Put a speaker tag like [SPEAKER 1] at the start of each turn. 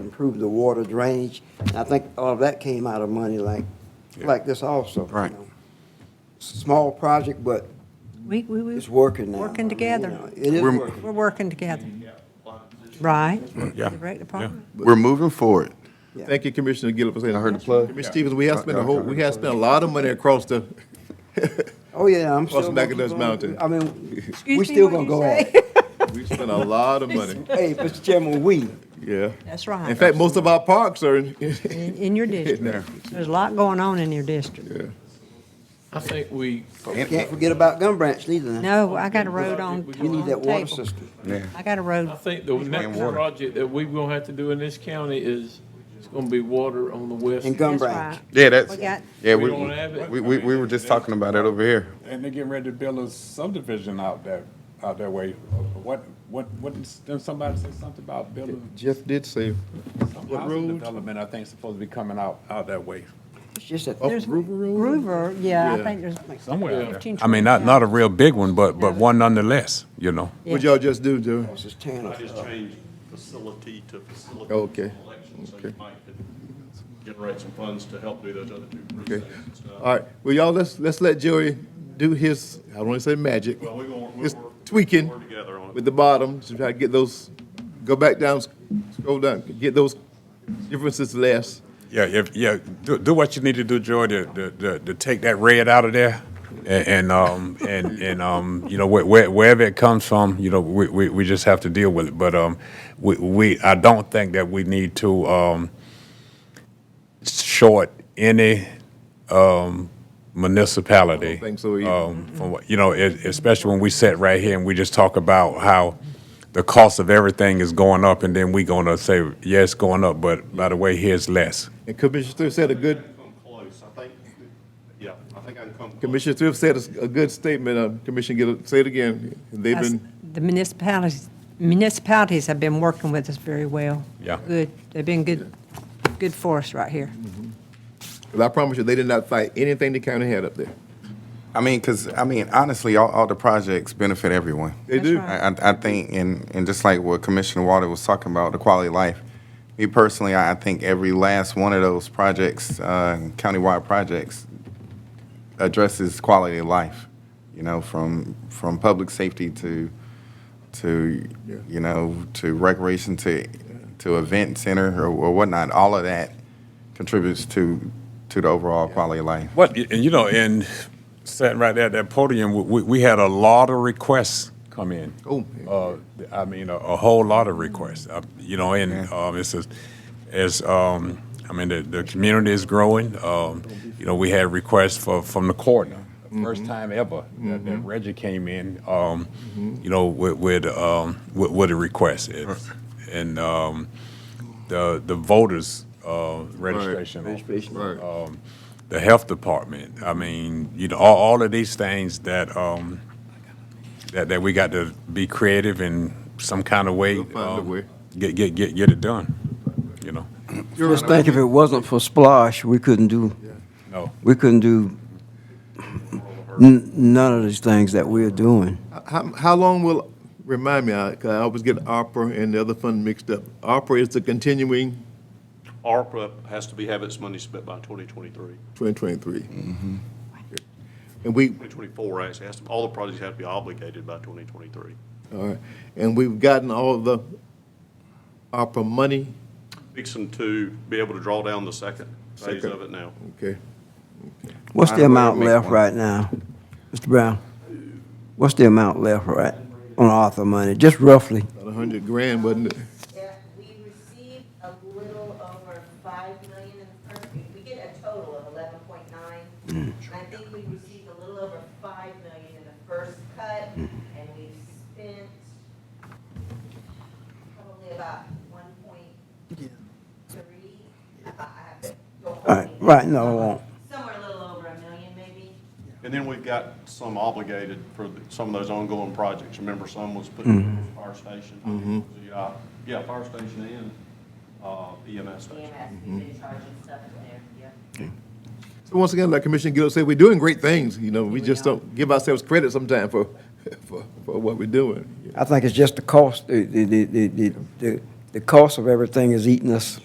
[SPEAKER 1] improve the water drainage. And I think all of that came out of money like, like this also. you
[SPEAKER 2] Right.
[SPEAKER 1] know. Small project, but
[SPEAKER 3] We, we, we,
[SPEAKER 1] it's working now.
[SPEAKER 3] Working
[SPEAKER 1] I mean, you
[SPEAKER 3] together.
[SPEAKER 1] know, It is
[SPEAKER 2] We're-
[SPEAKER 1] working.
[SPEAKER 3] we're working together. Right?
[SPEAKER 2] Yeah.
[SPEAKER 3] The rec department.
[SPEAKER 2] We're moving forward.
[SPEAKER 4] Thank you, Commissioner Gillum, for saying. I
[SPEAKER 2] heard the plug.
[SPEAKER 4] Commissioner Stevens, we have spent a whole, we have spent a lot of money across the,
[SPEAKER 1] Oh, yeah, I'm still.
[SPEAKER 4] Welcome back
[SPEAKER 1] gonna
[SPEAKER 4] to
[SPEAKER 1] keep
[SPEAKER 4] Dutch
[SPEAKER 1] on-
[SPEAKER 4] Mountain.
[SPEAKER 1] I mean, we
[SPEAKER 3] Excuse me,
[SPEAKER 1] still
[SPEAKER 3] what'd
[SPEAKER 1] gonna
[SPEAKER 3] you
[SPEAKER 1] go
[SPEAKER 3] say?
[SPEAKER 1] at it.
[SPEAKER 4] we spent a lot of money,
[SPEAKER 1] Hey, Mr. Chairman, we,
[SPEAKER 4] yeah.
[SPEAKER 3] That's right.
[SPEAKER 4] In fact, most of our parks are in,
[SPEAKER 3] In, in your
[SPEAKER 4] in
[SPEAKER 3] district.
[SPEAKER 4] there.
[SPEAKER 3] There's a lot going on in your district.
[SPEAKER 5] I think we.
[SPEAKER 1] can't forget about Gum Branch neither. now.
[SPEAKER 3] No, I got a road on,
[SPEAKER 5] We
[SPEAKER 1] You need
[SPEAKER 3] on the
[SPEAKER 1] that water
[SPEAKER 3] table.
[SPEAKER 1] system.
[SPEAKER 3] I got a
[SPEAKER 5] I
[SPEAKER 3] road.
[SPEAKER 5] think the next
[SPEAKER 2] water.
[SPEAKER 5] project that we're gonna have to do in this county is, it's gonna be water on the west.
[SPEAKER 1] And Gum
[SPEAKER 3] That's
[SPEAKER 1] Branch.
[SPEAKER 3] right.
[SPEAKER 2] Yeah, that's,
[SPEAKER 3] We got-
[SPEAKER 2] yeah,
[SPEAKER 5] We
[SPEAKER 2] we,
[SPEAKER 5] don't have it.
[SPEAKER 2] we, we we were just talking about that over here.
[SPEAKER 6] And they're getting ready to build a subdivision out that, out that way. What, what, what, then somebody said something about building
[SPEAKER 4] Jeff did say,
[SPEAKER 6] some
[SPEAKER 4] What
[SPEAKER 6] housing
[SPEAKER 4] road?
[SPEAKER 6] development, I think supposed to be coming out, out that way.
[SPEAKER 1] It's just that,
[SPEAKER 4] Up Groover Road?
[SPEAKER 3] Groover, yeah, I
[SPEAKER 4] Yeah.
[SPEAKER 3] think there's.
[SPEAKER 6] Somewhere out there.
[SPEAKER 3] 15,
[SPEAKER 7] I mean, not,
[SPEAKER 3] 20,
[SPEAKER 7] not a real big one, but, but one nonetheless, you know.
[SPEAKER 4] What y'all just do, Joey?
[SPEAKER 1] it's just tearing
[SPEAKER 8] I
[SPEAKER 1] us
[SPEAKER 8] just
[SPEAKER 1] up.
[SPEAKER 8] changed facility to facility.
[SPEAKER 4] Uh, Okay.
[SPEAKER 8] Election, so
[SPEAKER 4] Okay.
[SPEAKER 8] you might could generate some funds to help do those other two Uh,
[SPEAKER 4] Okay.
[SPEAKER 8] precincts and stuff.
[SPEAKER 4] All right, well, y'all, let's, let's let Joey do his, I don't wanna say magic,
[SPEAKER 8] Well, we're gonna, we're.
[SPEAKER 4] Just
[SPEAKER 8] we're-
[SPEAKER 4] tweaking.
[SPEAKER 8] We're together on
[SPEAKER 4] with
[SPEAKER 8] it.
[SPEAKER 4] the bottom, to try to get those, go back down, scroll down, get those differences less.
[SPEAKER 7] Yeah, if, yeah, do, do what you need to do, Joy, to, to, to, to take that red out of there. And, and, um, and, and, um, you know, where- where, wherever it comes from, you know, we, we, we just have to deal with it. But, um, we, we, I don't think that we need to, um, short any, um, municipality.
[SPEAKER 4] I don't think so either.
[SPEAKER 7] Um, from what, you know, es- especially when we sit right here and we just talk about how the cost of everything is going up and then we gonna say, yeah, it's going up, but by the way, here's less.
[SPEAKER 4] And Commissioner Thrift said a good,
[SPEAKER 8] Come close, I think, yeah, I think I can come. close.
[SPEAKER 4] Commissioner Thrift said a s- a good statement, uh, Commissioner Gill, say it again. They've
[SPEAKER 3] Us-
[SPEAKER 4] been,
[SPEAKER 3] The municipalities, municipalities have been working with us very well.
[SPEAKER 7] Yeah.
[SPEAKER 3] Good, they've been good, good for us right here.
[SPEAKER 4] 'cause I promise you, they did not fight anything the county had up there.
[SPEAKER 2] I mean, because, I mean, honestly, all, all the projects benefit everyone.
[SPEAKER 4] They
[SPEAKER 3] That's
[SPEAKER 4] do.
[SPEAKER 3] right.
[SPEAKER 2] I, I I think, and, and just like what Commissioner Water was talking about, the quality of life. Me personally, I I think every last one of those projects, uh, countywide projects, addresses quality of life. You know, from from public safety to to you know to recreation to to event center or, or whatnot. All of that contributes to to the overall quality of life.
[SPEAKER 7] What, and you know, and sitting right there at that podium, we- we, we had a lot of requests come in.
[SPEAKER 4] Oh.
[SPEAKER 7] Uh, I mean, a, a whole lot of requests, uh, you know, and, um, it's a, as, um, I mean, the, the community is growing. Um, you know, we had requests for, from the coroner, first time ever that, that Reggie came in, um, you know, with, with, um, with, with a request. It's- And, um, the, the voters, uh, registration.
[SPEAKER 1] Registration.
[SPEAKER 4] Right.
[SPEAKER 7] Um, the health department. I mean, you know, all, all of these things that, um, that, that we got to be creative in some kind of way.
[SPEAKER 4] We'll find a
[SPEAKER 7] um,
[SPEAKER 4] way.
[SPEAKER 7] Get, get, get, get it done, you know?
[SPEAKER 1] Just think if it wasn't for Splash, we couldn't do,
[SPEAKER 7] No.
[SPEAKER 1] we couldn't do n- none of these things that we're doing.
[SPEAKER 4] How, how long will, remind me, I, 'cause I always get ARPA and the other fund mixed up. ARPA is the continuing
[SPEAKER 8] ARPA has to be, have its money spent by 2023,
[SPEAKER 4] 2023.
[SPEAKER 3] Mm-hmm.
[SPEAKER 4] And we,
[SPEAKER 8] 2024, actually, has to, all the projects have to be obligated by 2023.
[SPEAKER 4] all right, and we've gotten all the ARPA money,
[SPEAKER 8] Fixing to be able to draw down the second phase
[SPEAKER 4] Second.
[SPEAKER 8] of it now.
[SPEAKER 4] okay?
[SPEAKER 1] What's the
[SPEAKER 2] Find a way to
[SPEAKER 1] amount
[SPEAKER 2] make
[SPEAKER 1] left
[SPEAKER 2] one.
[SPEAKER 1] right now, Mr. Brown? What's the amount left right on Arthur money, just roughly?
[SPEAKER 4] About 100 grand, wasn't it?
[SPEAKER 9] Yeah, we received a little over five million in the first, we- we get a total of eleven point nine.
[SPEAKER 1] Mm.
[SPEAKER 9] And I think we received a little over five million in the first cut,
[SPEAKER 1] Mm.
[SPEAKER 9] and we've spent probably about one point three. I- I have to go home.
[SPEAKER 1] Right, right, no, I won't.
[SPEAKER 9] Somewhere a little over a million, maybe.
[SPEAKER 8] And then we've got some obligated for the- some of those ongoing projects. Remember, some was put in the fire station. The, uh, Yeah, fire station and uh, EMS
[SPEAKER 1] Mm-hmm.
[SPEAKER 8] station.
[SPEAKER 9] EMS, E we've been charging stuff in there, yeah.
[SPEAKER 4] So once again, like Commissioner Gill said, we're doing great things, you know, we just don't give ourselves credit sometimes for, for, for what we're doing.
[SPEAKER 1] I think it's just the cost, the, the, the, the, the- the cost of everything is eating us